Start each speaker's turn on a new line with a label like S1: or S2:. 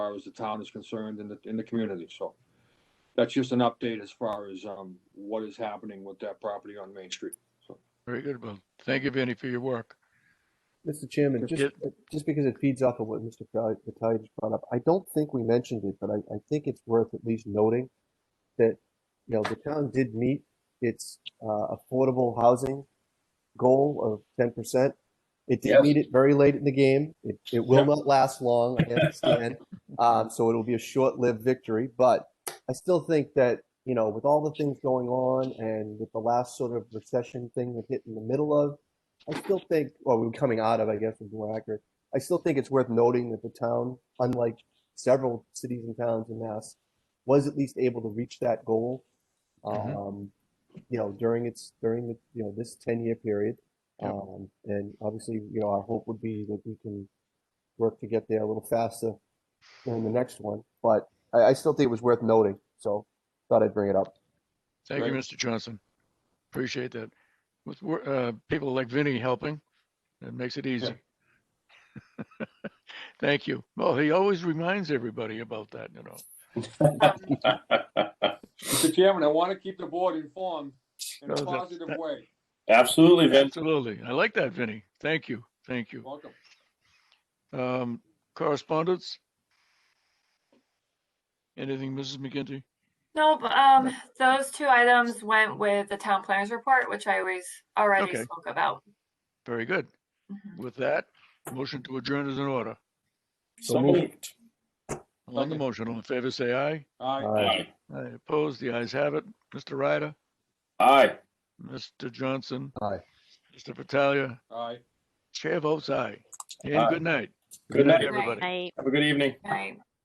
S1: far as the town is concerned in the, in the community, so. That's just an update as far as, um, what is happening with that property on Main Street.
S2: Very good. Well, thank you, Vinnie, for your work.
S3: Mr. Chairman, just,
S2: Yep.
S3: just because it feeds off of what Mr. Fattah just brought up, I don't think we mentioned it, but I, I think it's worth at least noting that, you know, the town did meet its, uh, affordable housing goal of ten percent. It did
S1: Yes.
S3: meet it very late in the game. It, it will
S1: Yep.
S3: not last long, I understand. Um, so it'll be a short-lived victory, but I still think that, you know, with all the things going on and with the last sort of recession thing that hit in the middle of, I still think, well, we're coming out of, I guess, is more accurate. I still think it's worth noting that the town, unlike several cities and towns in Mass, was at least able to reach that goal.
S2: Mhm.
S3: Um, you know, during its, during the, you know, this ten-year period.
S2: Yep.
S3: Um, and obviously, you know, our hope would be that we can work to get there a little faster than the next one, but I, I still think it was worth noting, so thought I'd bring it up.
S2: Thank you,
S1: Right.
S2: Mr. Johnson. Appreciate that. With wor- uh, people like Vinnie helping, it makes it easy. Thank you. Well, he always reminds everybody about that, you know.
S1: Mr. Chairman, I want to keep the board informed in
S2: No,
S1: a
S2: that's-
S1: positive way.
S4: Absolutely, Vince.
S2: Absolutely. I like that, Vinnie. Thank you. Thank you.
S1: Welcome.
S2: Um, correspondence? Anything, Mrs. McGinty?
S5: Nope, um, those two items went with the town planners report, which I always already
S2: Okay.
S5: spoke about.
S2: Very good.
S5: Mhm.
S2: With that, motion to adjourn is in order.
S4: So moved.
S2: On the
S1: Second.
S2: motion, all in favor, say aye.
S1: All right,
S3: All right.
S4: Aye.
S2: Aye opposed, the ayes have it. Mr. Ryder,
S4: Aye.
S2: Mr. Johnson,
S3: Aye.
S2: Mr. Patalia,
S1: all right.
S2: chair votes aye. And
S4: Aye.
S2: good night.
S4: Good night.
S2: Everybody.
S6: I
S4: Have a good evening.
S5: Right.